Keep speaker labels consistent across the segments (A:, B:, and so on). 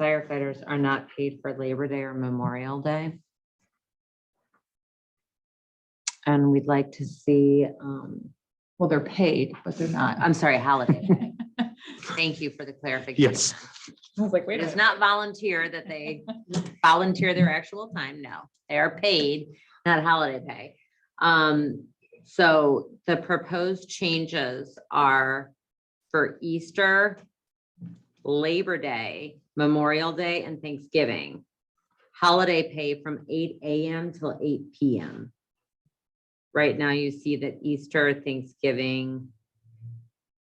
A: firefighters are not paid for Labor Day or Memorial Day. And we'd like to see, um, well, they're paid, but they're not, I'm sorry, holiday. pay. Thank you for the clarification.
B: Yes.
C: I was like, wait
A: It
C: a
A: is
C: minute.
A: not volunteer that they volunteer their actual time. No, they are paid, not holiday pay. Um, so the proposed changes are for Easter, Labor Day, Memorial Day, and Thanksgiving. Holiday pay from eight AM till eight PM. Right now, you see that Easter, Thanksgiving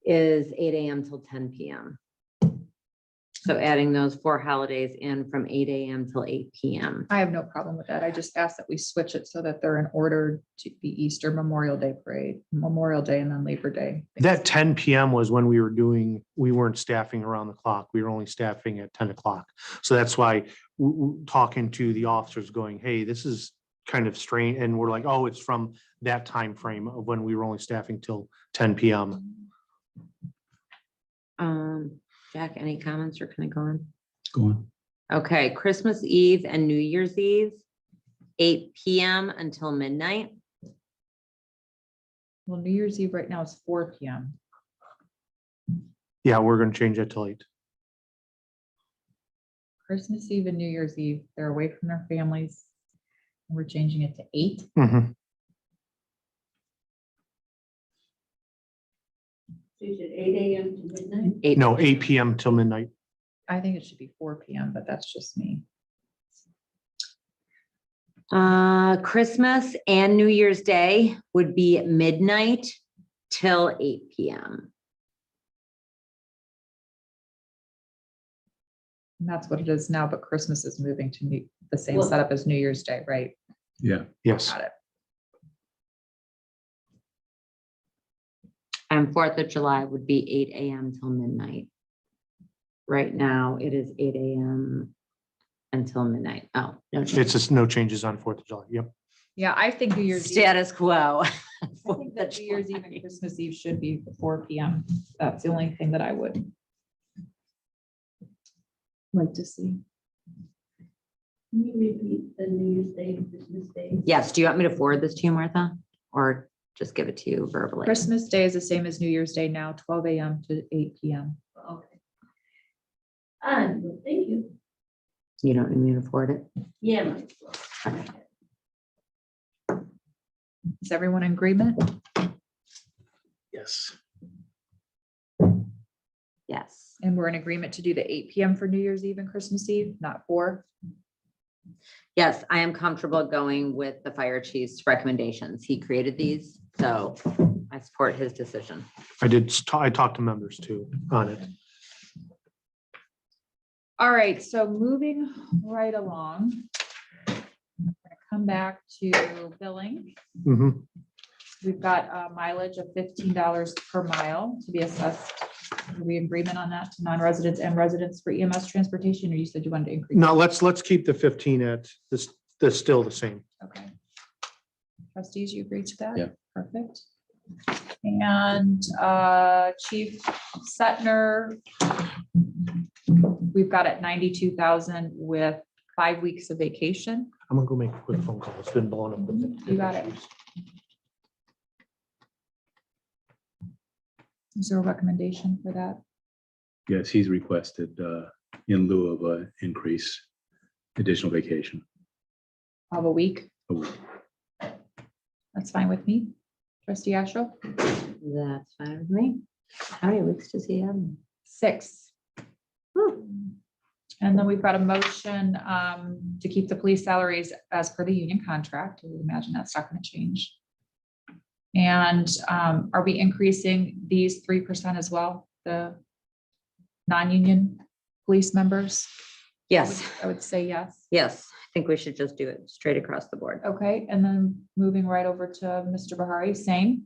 A: is eight AM till ten PM. So adding those four holidays in from eight AM till eight PM.
C: I have no problem with that. I just ask that we switch it so that they're in order to be Easter Memorial Day Parade, Memorial Day and then Labor Day.
B: That ten PM was when we were doing, we weren't staffing around the clock. We were only staffing at ten o'clock. So that's why w- w- talking to the officers going, hey, this is kind of strange. And we're like, oh, it's from that time frame of when we were only staffing till ten PM.
A: Um, Jack, any comments or can I go on?
D: Go on.
A: Okay, Christmas Eve and New Year's Eve, eight PM until midnight.
C: Well, New Year's Eve right now is four P M.
B: Yeah, we're gonna change that till eight.
C: Christmas Eve and New Year's Eve, they're away from their families. We're changing it to eight.
B: Mhm.
E: She said eight AM to midnight.
A: Eight-
B: No, eight PM till midnight.
C: I think it should be four P M, but that's just me.
A: Uh, Christmas and New Year's Day would be at midnight till eight PM.
C: And that's what it is now, but Christmas is moving to new- the same
E: Well-
C: setup as New Year's Day, right?
D: Yeah,
B: Yes.
C: Got it.
A: And Fourth of July would be eight AM till midnight. Right now, it is eight AM until midnight. Oh, no. change.
B: It's just no changes on Fourth of July. Yep.
C: Yeah, I think New Year's. Eve-
A: Status quo.
C: I think that New Year's Eve and Christmas Eve should be four P M. That's the only thing that I would like to see.
E: Can you repeat the New Year's Day and Christmas Day?
A: Yes, do you want me to forward this to you, Martha? Or just give it to you verbally?
C: Christmas Day is the same as New Year's Day now, twelve A M to eight P M.
E: Okay. And, well, Ah, thank you.
A: You don't need me to forward it?
E: Yeah. might as well.
C: Is everyone in agreement?
B: Yes.
A: Yes.
C: And we're in agreement to do the eight P M for New Year's Eve and Christmas Eve, not four?
A: Yes, I am comfortable going with the fire chief's recommendations. He created these, so I support his decision.
B: I did, s- ta- I talked to members too on it.
C: All right, so moving right along. We're gonna Come back to billing.
B: Mhm.
C: We've got uh, mileage of fifteen dollars per mile to be assessed. Are we in agreement on that to non-residents and residents for EMS transportation, or you said you wanted to increase?
B: Now, let's, let's keep the fifteen at this, that's still the same.
C: Okay. Trustees, you agree to that?
D: Yeah.
C: Perfect. And uh, Chief Setner, we've got at ninety-two thousand with five weeks of vacation.
B: I'm gonna go make a quick phone call. It's been blowing up. with the-
C: You got it. Is there a recommendation for that?
D: yes, he's requested uh, in lieu of an increase, additional vacation.
C: Of a week?
D: a week.
C: That's fine with me. Trustee Astral?
A: That's fine with me. How many weeks does he have?
C: Six.
A: Whew.
C: And then we've got a motion um, to keep the police salaries as per the union contract. I would imagine that's not going to change. And um, are we increasing these three percent as well, the non-union police members?
A: Yes,
C: I would say yes.
A: yes. I think we should just do it straight across the board.
C: Okay, and then moving right over to Mr. Bahari, same,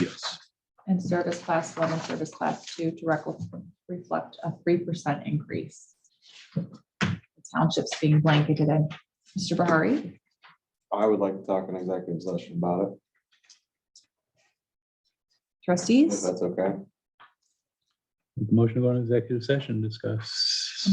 D: Yes,
C: and service class one and service class two to rec- reflect a three percent increase. The Townships being blanketed in. Mr. Bahari?
F: I would like to talk in executive session about it, if
C: Trustees?
F: that's okay.
D: motion to go on executive session, discuss.